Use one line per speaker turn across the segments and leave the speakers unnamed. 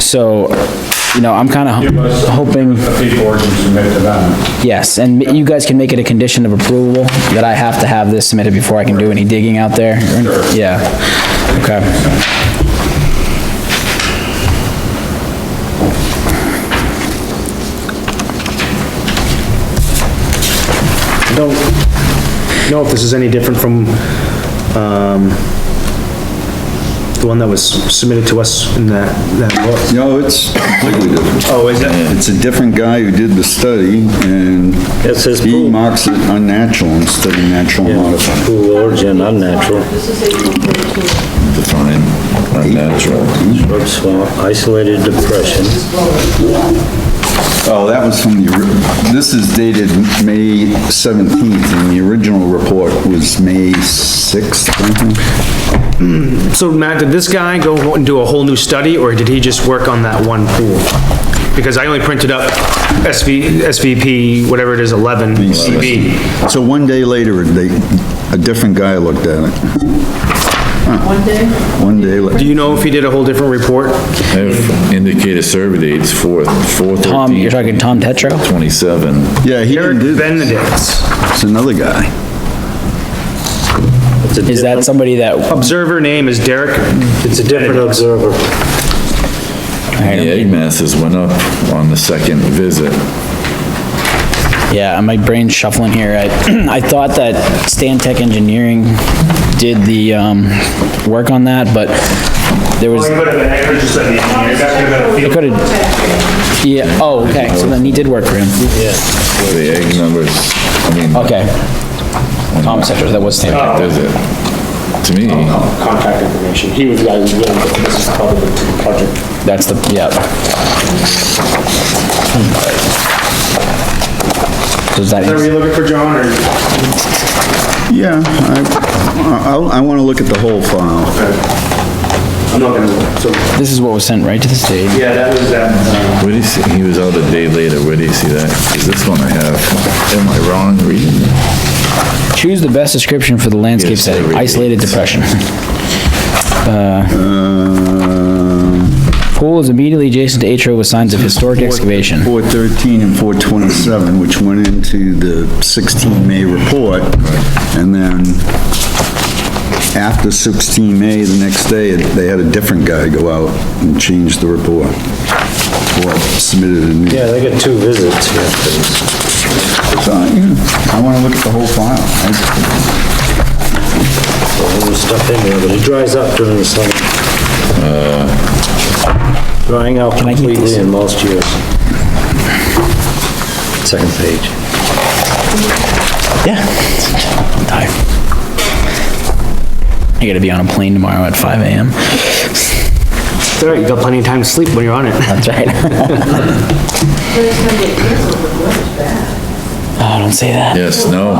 So, you know, I'm kinda
Give
ho-
us-
hoping,
The fee board can submit to them.
yes, and you guys can make it a condition of approval that I have to have this submitted before I can do any digging out there. Yeah, okay.
don't know if this is any different from, um, the one that was submitted to us in that, that book.
No, it's completely different.
Oh, is it?
It's a different guy who did the study and
That's his
he
pool.
marks it unnatural instead of natural modified.
Pool origin, unnatural,
This is April 13th.
Define unnatural.
shrub swamp, isolated depression.
Oh, that was from the, ori- this is dated May 17th and the original report was May 6th. I think.
So Matt, did this guy go and do a whole new study, or did he just work on that one pool? Because I only printed up SV, SVP, whatever it is, 11 CB.
So one day later, they, a different guy looked at it.
One day?
One day later.
Do you know if he did a whole different report?
Have indicated survey dates fourth, fourth.
Tom, you're talking Tom Tetra?
Twenty-seven.
Yeah, he
Eric
didn't do this.
Benedict's
It's another guy.
It's a
Is
different-
that somebody that, all
observer name is Derek.
It's a different observer.
The
right,
egg masses went up on the second visit.
yeah, my brain's shuffling here. I, I thought that Stan Tech Engineering did the, um, work on that, but there was,
could have, I could have just said the engineer, that could have
it could've, yeah, oh, okay, so then he did work for him.
The egg numbers, I mean,
Okay. Tom Tetra, that was Stan. Tech.
does it? To me,
contact information. He was the guy who was willing to, this is part of the project.
That's the, yeah. Does that,
Are you looking for John, or?
Yeah, I, I, I wanna look at the whole file.
I'm not gonna look, so,
this is what was sent right to the state.
yeah, that was that, uh,
where do you see, he was out a day later, where do you see that? Is this one I have, am I wrong reading?
Choose the best description for the landscape
Yes,
setting,
every-
isolated depression.
Uh,
Pool is immediately adjacent to atrio with signs of historic excavation.
413 and 427, which went into the 16 May report. And then after 16 May, the next day, they had a different guy go out and change the report. Or submitted a new.
Yeah, they got two visits here.
So, yeah, I wanna look at the whole file. I-
There's stuff in there, but it dries up during the summer.
Uh.
Drying out
I keep
completely
this?
in most years. Second page.
Yeah. I'm tired. I gotta be on a plane tomorrow at 5 AM.
Derek, you got plenty of time to sleep when you're on it.
That's right. Oh, don't say that.
Yes, no,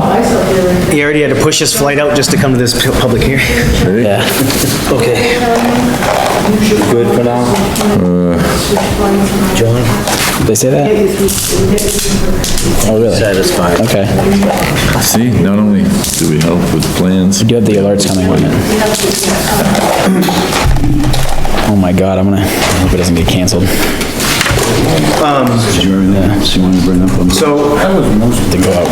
He already had to push his flight out just to come to this pu- public hearing.
Yeah.
Okay. Good for now? John?
They say that? Oh, really?
Satisfied.
Okay.
see, not only do we help with plans,
You do have the alerts coming on it. Oh my god, I'm gonna, I hope it doesn't get canceled.
Did you have anything else you wanna bring up on?
Um, So,
To go out,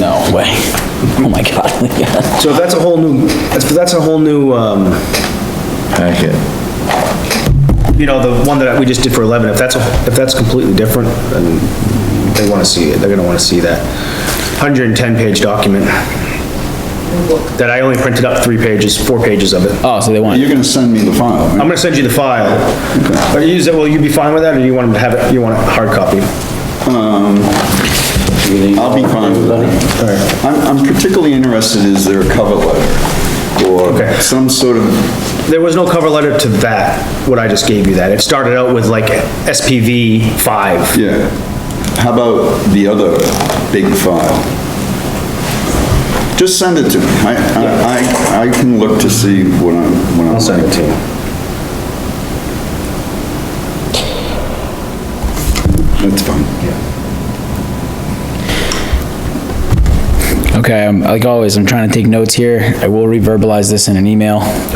no way. Oh my god.
so if that's a whole new, that's, that's a whole new, um,
packet,
you know, the one that we just did for 11, if that's, a- if that's completely different, then they wanna see it, they're gonna wanna see that. 110-page document. That I only printed up three pages, four pages of it.
Oh, so they want,
You're
it.
gonna send me the file, right?
I'm gonna send you the file. Are you, is it- will you be fine with that, or you want to have it, you want a hard copy?
I'll be fine with that. I'm, I'm particularly interested, is there a cover letter? Or
Okay.
some sort of,
There was no cover letter to that, what I just gave you that. It started out with like SPV 5.
yeah. How about the other big file? Just send it to me. I, I, I- I can look to see what I'm, what I'm.
I'll send it to you.
That's fine.
okay, I'm- like always, I'm trying to take notes here. I will reverbalize this in an email.